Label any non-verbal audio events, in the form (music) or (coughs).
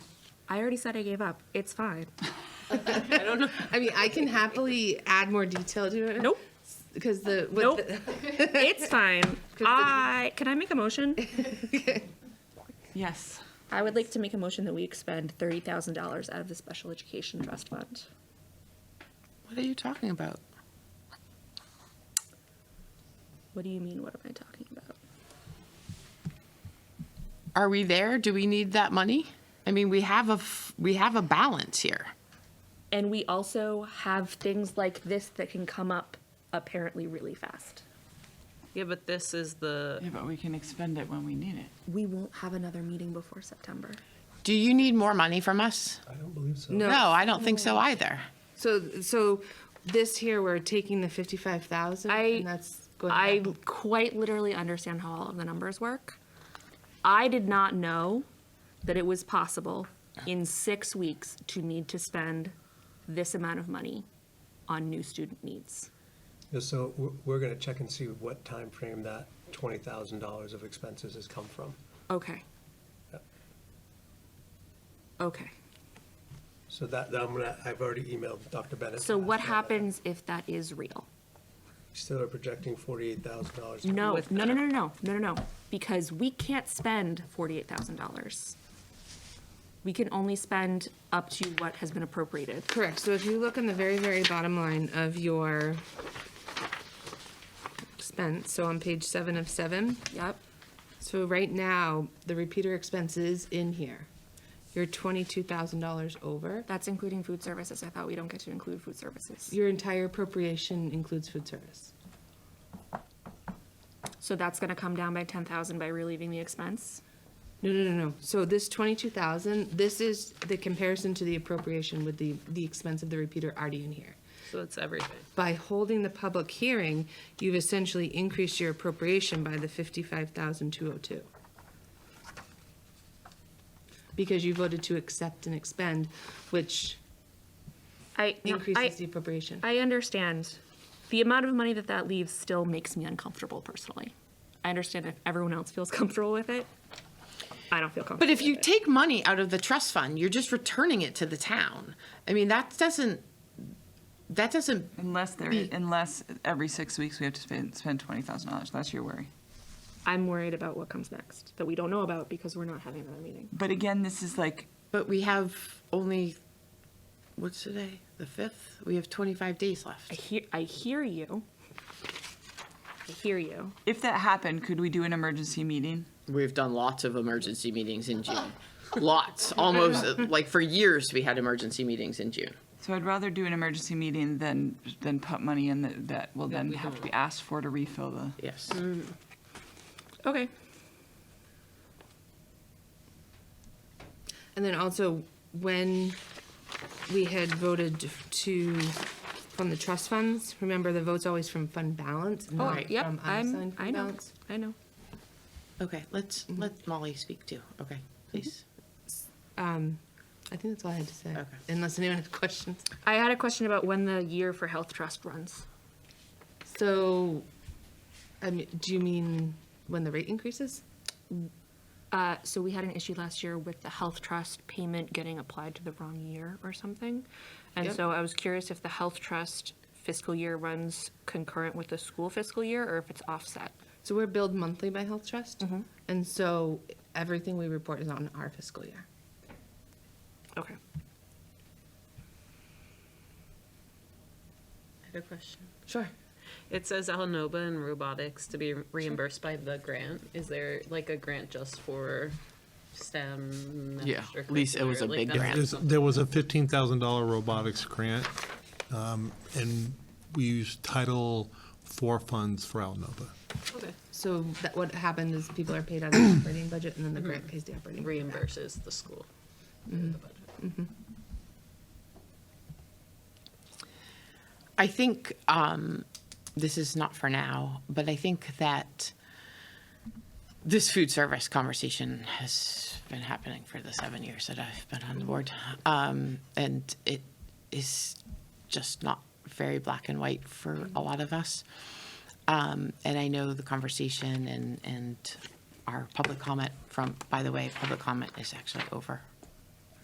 I already said I gave up. It's fine. I don't know. I mean, I can happily add more detail to it. Nope. Because the. what Nope. the- (laughs) It's (laughs) fine. I, can I make a (laughs) motion? Yes. I would like to make a motion that we expend thirty thousand dollars out of the special education trust fund. What are you talking about? What do you mean, what am I talking about? Are we there? Do we need that money? I mean, we have a f- we have a balance here. And we also have things like this that can come up apparently really fast. Yeah, but this is the, Yeah, but we can expend it when we need it. We won't have another meeting before September. Do you need more money from us? I don't believe so. No, I don't think so either. So, so this here, we're taking the fifty-five thousand I, and that's going. I back. quite literally understand how all of the numbers work. I did not know that it was possible in six weeks to need to spend this amount of money on new student needs. Yeah, So we're- we're going to check and see what time frame that $20,000 of expenses has come from. Okay. Yep. Okay. So that, that I'm going to, I've already emailed Dr. Bennett. So what last night. happens if that is real? Still are projecting $48,000. No, with no, no, that. no, no, no, no, no, because we can't spend forty-eight thousand dollars. We can only spend up to what has been appropriated. Correct. So if you look on the very, very bottom line of your expense, so on page seven of seven. Yep, So right now, the repeater expense is in here. You're twenty-two thousand dollars over. that's including food services. I thought we don't get to include food services. Your entire appropriation includes food service. So that's gonna come down by ten thousand by relieving the expense. No, no, no, no. So this twenty-two thousand, this is the comparison to the appropriation with the, the expense of the repeater already in here. so it's everything. By holding the public hearing, you've essentially increased your appropriation by the fifty-five thousand two oh two. Because you voted to accept and expend, which I, no, I, increases the appropriation. I understand. The amount of money that that leaves still makes me uncomfortable personally. I understand if everyone else feels (laughs) comfortable with it. I don't feel comfortable But if you with it. take money out of the trust fund, you're just returning it to the town. I mean, that doesn't that doesn't Unless there, unless every six weeks we have to spend, spend twenty thousand dollars. That's your worry. I'm worried about what comes next that we don't know about because we're not having another meeting. But again, this is like, but we have only what's today? The 5th. We have 25 days I left. hear, I hear you. I hear you. if that happened, could we do an emergency meeting? We've done lots of emergency meetings in (laughs) June. lots. Almost uh, like for years we had emergency meetings in June. So I'd rather do an emergency meeting than, than put money in that, that will then have to be asked for to refill the. Yes. Okay. And then also, when we had voted to fund the trust funds, remember the vote's always from fund balance, not Oh, yep, from I'm- um, unassigned I fund know. balance. I know. Okay, let's let Molly speak too. Okay, please. I think that's all I had to say, Okay. unless anyone has questions. I had a question about when the year for health trust runs. So, I mean, do you mean when the rate increases? Uh, so we had an issue last year with the health trust payment getting applied to the wrong year or something. And Yep. so I was curious if the health trust fiscal year runs concurrent with the school fiscal year or if it's offset. So we're billed monthly by Health Trust, and so everything we report is on our fiscal year. Okay. I have a question. Sure. It says Alnoba and robotics to be reimbursed by the grant. Is there like a grant just for STEM? Yeah, at least it was a extracurricular, like big that's grant. There's- There was a fifteen thousand dollar robotics grant, um, and we used Title IV funds for Alnova. Okay. So that, what happened is people are paid out of the (coughs) Mm-hmm. operating budget, and then the grant pays the operating. Reimburses the school. The budget. I think um, this is not for now, but I think that this food service conversation has been happening for the seven years that I've been on the board, um, and it is just not very black and white for a lot of us. Um, and I know the conversation and and our public comment from by the way, public comment is actually over